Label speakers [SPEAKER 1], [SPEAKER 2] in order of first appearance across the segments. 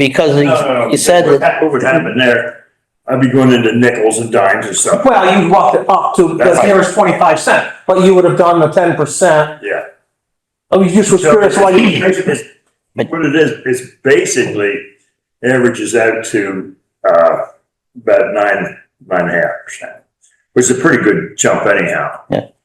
[SPEAKER 1] Because
[SPEAKER 2] No, no,
[SPEAKER 1] you-
[SPEAKER 2] no.
[SPEAKER 1] you said
[SPEAKER 2] What
[SPEAKER 1] that,
[SPEAKER 2] ha- What would happen there, I'd be going into nickels and dimes or something,
[SPEAKER 3] Well, you walked it up to
[SPEAKER 2] That's
[SPEAKER 3] the nearest twenty-five cent, but you would have done the ten percent.
[SPEAKER 2] yeah.
[SPEAKER 3] I was just was
[SPEAKER 2] So
[SPEAKER 3] curious why you,
[SPEAKER 2] it's- What it is, it's basically averages out to, uh, about nine, nine and a half percent, which is a pretty good jump anyhow.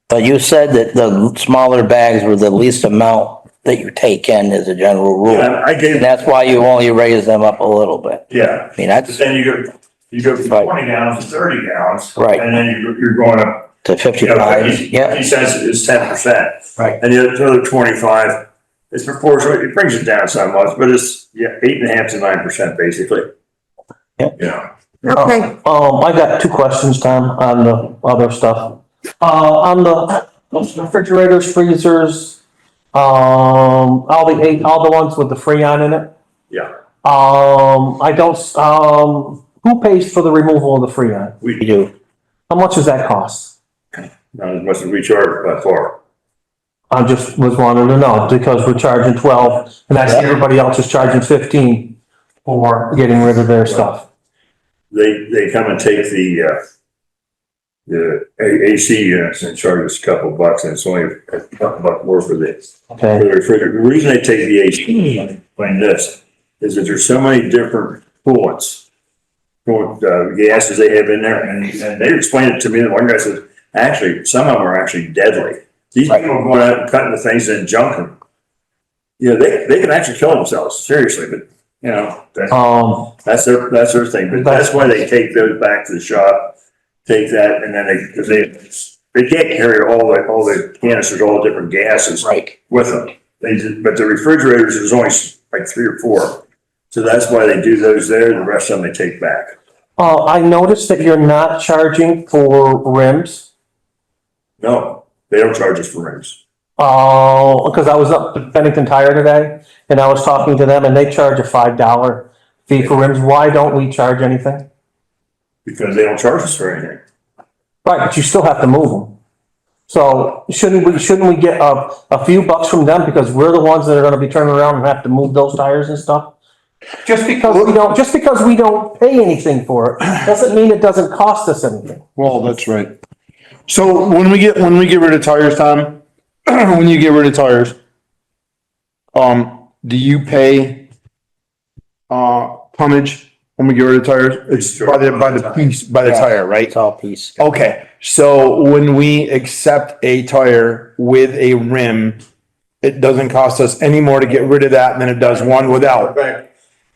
[SPEAKER 1] but you said that the smaller bags were the least amount that you take in as a general
[SPEAKER 2] And
[SPEAKER 1] rule.
[SPEAKER 2] I
[SPEAKER 1] And
[SPEAKER 2] gave,
[SPEAKER 1] that's why you only raise them up a little bit.
[SPEAKER 2] yeah,
[SPEAKER 1] I mean,
[SPEAKER 2] but
[SPEAKER 1] that's
[SPEAKER 2] then you go, you go
[SPEAKER 1] Right.
[SPEAKER 2] from twenty gallons to thirty gallons.
[SPEAKER 1] Right.
[SPEAKER 2] And then you're, you're going up,
[SPEAKER 1] to
[SPEAKER 2] you know,
[SPEAKER 1] fifty-five,
[SPEAKER 2] fifty
[SPEAKER 1] yeah,
[SPEAKER 2] fifty cents is ten percent.
[SPEAKER 1] Right.
[SPEAKER 2] And the other- the other twenty-five is proportional, it brings it down so much, but it's, yeah, eight and a half to nine percent basically.
[SPEAKER 1] Yeah.
[SPEAKER 2] Yeah.
[SPEAKER 4] Okay,
[SPEAKER 3] um, I got two questions, Tom, on the other stuff. Uh, on the those refrigerators, freezers, um, all the eight, all the ones with the Freon in it.
[SPEAKER 2] Yeah.
[SPEAKER 3] Um, I don't, s- um, who pays for the removal of the Freon?
[SPEAKER 1] you do.
[SPEAKER 3] How much does that cost?
[SPEAKER 2] Not as much as we charge by far.
[SPEAKER 3] I just was wanting to know, because we're charging twelve, and I see everybody else is charging fifteen for getting rid of their stuff.
[SPEAKER 2] They, they come and take the, uh, the A- AC units and charge us a couple bucks and it's only a couple bucks more for this. For
[SPEAKER 3] Okay,
[SPEAKER 2] the refrigerator. The reason they take the AC, unit, explain this, is that there's so many different coolants. Coolant, uh, gases they have in there and, and they explained it to me, the one guy said, actually, some of them are actually deadly. These people
[SPEAKER 1] Right.
[SPEAKER 2] are going out and cutting the things and junking. them. You know, they, they can actually kill themselves, seriously, but, you know, that's.
[SPEAKER 3] um,
[SPEAKER 2] That's their, that's their thing, but that's why they take those back to the shop, take that, and then they, because they, they can't carry all the, all the canisters, all the different gases
[SPEAKER 1] Right.
[SPEAKER 2] with them. They, ju- but the refrigerators, there's only s- like three or four, so that's why they do those there, the rest of them they take back.
[SPEAKER 3] uh, I noticed that you're not charging for rims.
[SPEAKER 2] No, they don't charge us for rings.
[SPEAKER 3] Uh, because I was up at Bennington Tire today, and I was talking to them, and they charge a five dollar fee for rims. Why don't we charge anything?
[SPEAKER 2] Because they don't charge us for anything.
[SPEAKER 3] Right, but you still have to move them. So shouldn't we, shouldn't we get a, a few bucks from them because we're the ones that are gonna be turning around and have to move those tires and stuff? Just because we don't, just because we don't pay anything for it, doesn't mean it doesn't cost us anything.
[SPEAKER 5] Well, that's right. So when we get, when we get rid of tires, Tom, when you get rid of tires, um, do you pay, uh, tonnage when we get rid of tires? It's by the, by the piece, by the tire, right?
[SPEAKER 1] It's all piece.
[SPEAKER 5] Okay, so when we accept a tire with a rim, it doesn't cost us any more to get rid of that than it does one without.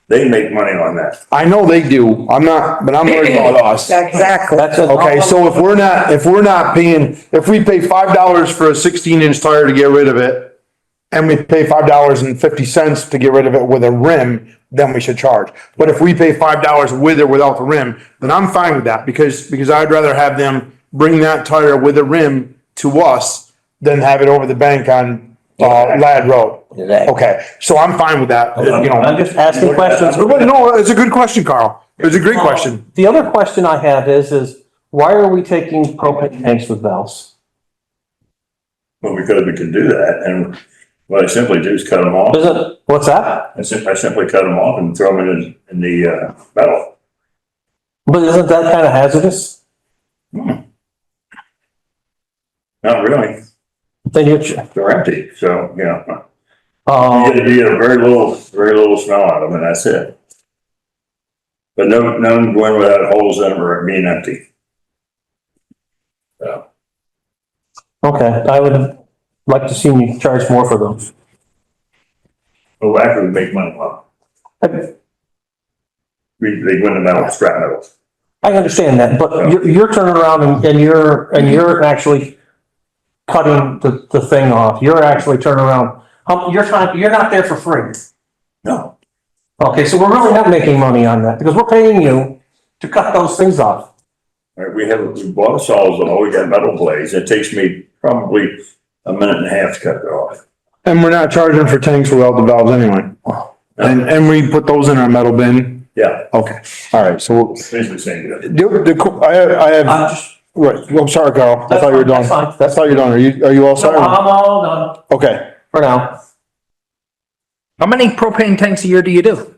[SPEAKER 2] They make money on that.
[SPEAKER 5] I know they do. I'm not, but I'm worried about us.
[SPEAKER 4] exactly.
[SPEAKER 3] That's it.
[SPEAKER 5] Okay, so if we're not, if we're not paying, if we pay five dollars for a sixteen inch tire to get rid of it. And we pay five dollars and fifty cents to get rid of it with a rim, then we should charge. But if we pay five dollars with or without the rim, then I'm fine with that because, because I'd rather have them bring that tire with a rim to us. Than have it over the bank on, uh, Lad Road.
[SPEAKER 1] Exactly.
[SPEAKER 5] Okay, so I'm fine with that, you
[SPEAKER 3] I'm
[SPEAKER 5] know.
[SPEAKER 3] just asking questions.
[SPEAKER 5] But no, it's a good question, Carl. It's a great question.
[SPEAKER 3] The other question I have is, is why are we taking propane tanks with valves?
[SPEAKER 2] Well, because we can do that, and what I simply do is cut them off.
[SPEAKER 3] Is it, what's that?
[SPEAKER 2] I simply, I simply cut them off and throw them in, in the, uh, metal.
[SPEAKER 3] But isn't that kind of hazardous?
[SPEAKER 2] Not really.
[SPEAKER 3] Then you're,
[SPEAKER 2] They're empty. So, you know, you
[SPEAKER 3] um,
[SPEAKER 2] get, you get a very little, very little smell out of them and that's it. But no, none going without holes in them or being empty.
[SPEAKER 3] okay, I would like to see you charge more for those.
[SPEAKER 2] But we Oh, actually make money on them. We, they go into metal, scrap metal.
[SPEAKER 3] I understand that, but you're, you're turning around and, and you're, and you're actually cutting the, the thing off. You're actually turning around. Um, you're not, you're not there for free.
[SPEAKER 2] No.
[SPEAKER 3] Okay, so we're really not making money on that because we're paying you to cut those things off.
[SPEAKER 2] All right, we have, we bought a sawzall, we got metal blades. It takes me probably a minute and a half to cut it off.
[SPEAKER 5] And we're not charging for tanks without the valves anyway. And, and we put those in our metal bin.
[SPEAKER 2] Yeah,
[SPEAKER 5] Okay, all right, so
[SPEAKER 2] basically saying that.
[SPEAKER 5] the, the, co- I, have- I
[SPEAKER 3] I'm
[SPEAKER 5] have,
[SPEAKER 3] just,
[SPEAKER 5] right, well, I'm sorry, Carl. I
[SPEAKER 3] That's
[SPEAKER 5] thought you were
[SPEAKER 3] fine,
[SPEAKER 5] done.
[SPEAKER 3] that's fine.
[SPEAKER 5] I thought you were done. Are you, are you all
[SPEAKER 3] so
[SPEAKER 5] set?
[SPEAKER 3] I'm all done
[SPEAKER 5] Okay.
[SPEAKER 3] for now.
[SPEAKER 6] How many propane tanks a year do you do?